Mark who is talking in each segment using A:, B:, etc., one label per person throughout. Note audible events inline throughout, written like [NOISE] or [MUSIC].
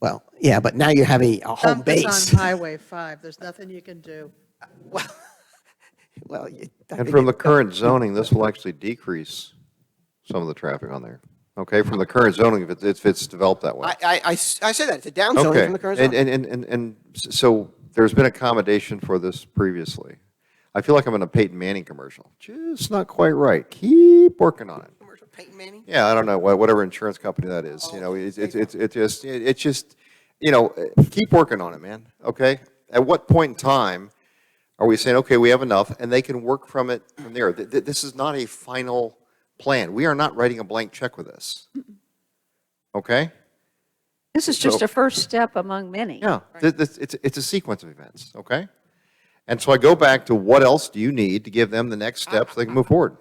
A: Well, yeah, but now you have a, a home
B: dump is
A: base.
B: on Highway 5, there's nothing you can do.
A: [LAUGHS] Well, you- I
C: And
A: think
C: from
D: [LAUGHS]
A: you-
C: the current zoning, this will actually decrease some of the traffic on there. Okay, from the current zoning, if it's, if it's developed that way.
D: I, I, I s- I said that, it's a down zoning
C: Okay,
D: from the current
C: and,
D: zone.
C: and, and, and- and s- so there's been accommodation for this previously. I feel like I'm in a Peyton Manning commercial. Just not quite right. Keep working on it.
D: Commercial Peyton Manning?
C: Yeah, I don't know, wha- whatever insurance company that is, you know, it's, it's, it's it just, it- it's just, you know, eh, keep working on it, man, okay? At what point in time are we saying, okay, we have enough, and they can work from it from there? Th- th- This is not a final plan. We are not writing a blank check with this. Okay?
E: This is just a first step among many.
C: Yeah, th- this, it's, it's a sequence of events, okay? And so I go back to what else do you need to give them the next steps so they can move forward?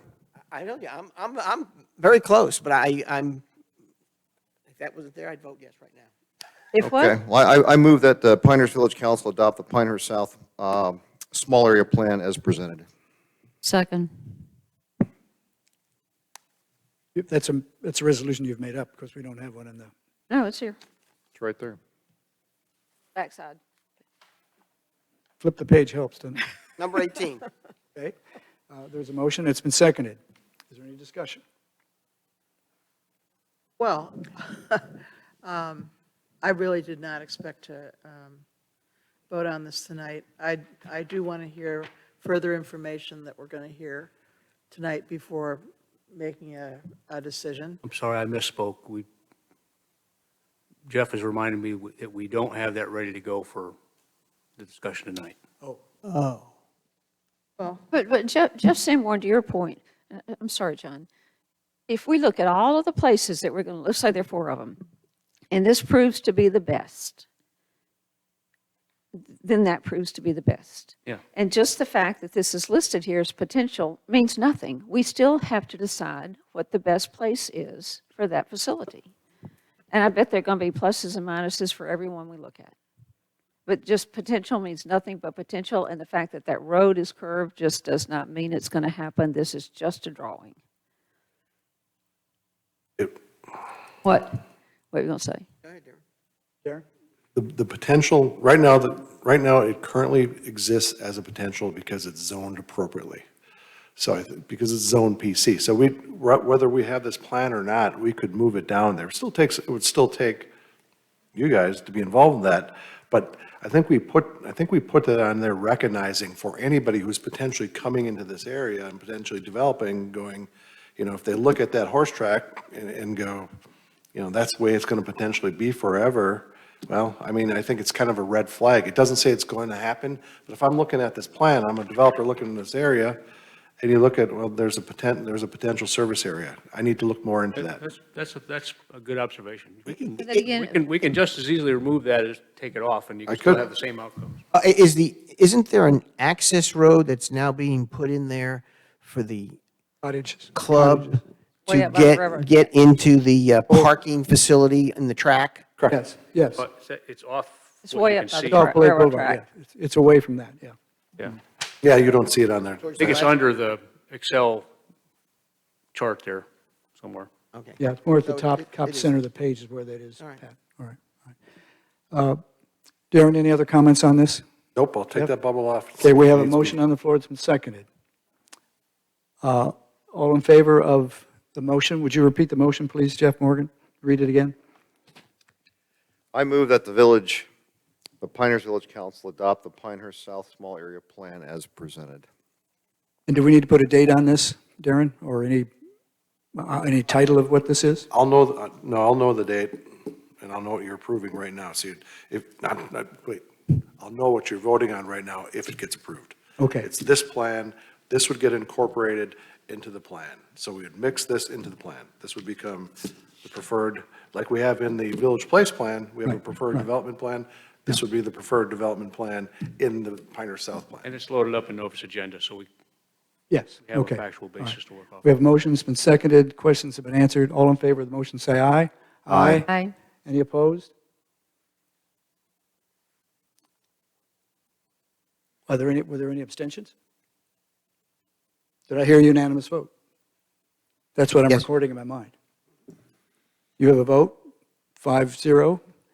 D: I know, yeah, I'm, I'm, I'm very close, but I, I'm, if that wasn't there, I'd vote yes right now.
E: If what?
C: Okay, well, I, I move that the Pinehurst Village Council adopt the Pinehurst South um, Small Area Plan as presented.
E: Second.
F: That's a, that's a resolution you've made up because we don't have one in the,
E: No, it's here,
C: It's right there.
E: backside.
F: flip the page helps, doesn't it?
D: Number
A: [LAUGHS]
D: 18,
F: Okay. Uh, There's a motion, it's been seconded. Is there any discussion?
B: Well, [LAUGHS] um, I really did not expect to um, vote on this tonight. I, I do want to hear further information that we're going to hear tonight before making a, a decision.
G: I'm sorry, I misspoke. We, Jeff has reminded me that we don't have that ready to go for the discussion tonight.
D: Oh.
F: Oh.
B: Well,
E: But, but Jeff, Jeff Sanborn, to your point, uh, uh, I'm sorry, John. If we look at all of the places that we're going to, let's say there are four of them, and this proves to be the best, then that proves to be the best.
G: Yeah.
E: And just the fact that this is listed here as potential means nothing. We still have to decide what the best place is for that facility. And I bet there are going to be pluses and minuses for everyone we look at. But just potential means nothing but potential, and the fact that that road is curved just does not mean it's going to happen. This is just a drawing. What? What are you going to say?
F: Darren?
H: The, the potential, right now, the, right now, it currently exists as a potential because it's zoned appropriately. So, I think- because it's zoned PC, so we, wh- whether we have this plan or not, we could move it down there. It Still takes, it would still take you guys to be involved in that, but I think we put, I think we put that on there recognizing for anybody who's potentially coming into this area and potentially developing, going, you know, if they look at that horse track and, and go, you know, that's the way it's going to potentially be forever. Well, I mean, I think it's kind of a red flag. It doesn't say it's going to happen, but if I'm looking at this plan, I'm a developer looking in this area, and you look at, well, there's a potent, there's a potential service area. I need to look more into that.
G: That's, that's, a- that's a good observation. We can,
E: But then again-
G: we can, we can just as easily remove that as take it off, and you
H: I
G: can still
H: could.
G: have the same outcomes.
A: Uh, i- Is the, isn't there an access road that's now being put in there for the
F: Cottages.
A: club
E: Way
A: to
E: up by the
A: get,
E: railroad.
A: get into the uh, parking facility and the track?
F: Yes, yes.
G: But it's- it's off.
E: It's
G: what
E: way
G: you
E: up
G: can
E: by the
G: see.
E: car.
F: Off Blake
E: railroad
F: Boulevard,
E: track.
F: yeah. It's- It's away from that, yeah.
G: Yeah.
H: Yeah, you don't see it on there.
G: I think it's under the Excel chart there somewhere.
D: okay.
F: Yeah, it's more at
D: So
F: the
D: it-
F: top,
D: it-
F: top
D: it is.
F: center of the page is where that is, Pat.
D: right.
F: All right. all right. Uh, Darren, any other comments on this?
H: Nope, I'll take that bubble off.
F: Okay, we have a motion on the floor, it's been seconded. Uh, All in favor of the motion, would you repeat the motion, please, Jeff Morgan? Read it again.
C: I move that the village, the Pinehurst Village Council adopt the Pinehurst South Small Area Plan as presented.
F: And do we need to put a date on this, Darren, or any, uh, any title of what this is?
H: I'll know, th- no, I'll know the date, and I'll know what you're approving right now. See, if, not, not, wait, I'll know what you're voting on right now if it gets approved.
F: Okay.
H: It's this plan, this would get incorporated into the plan. So we would mix this into the plan. This would become the preferred, like we have in the Village Place Plan, we have a
F: Right,
H: preferred
F: right.
H: development plan. This would be the preferred development plan in the Pinehurst South Plan.
G: And it's loaded up in Nova's agenda, so we
F: Yes,
G: have a
F: okay.
G: factual
F: all right.
G: basis to work off.
F: We have motions, been seconded, questions have been answered. All in favor of the motion, say aye.
E: Aye.
F: Any opposed? Are there any, were there any abstentions? Did I hear a unanimous vote? That's what I'm
A: Yes.
F: recording in my mind. You have a vote, five, zero,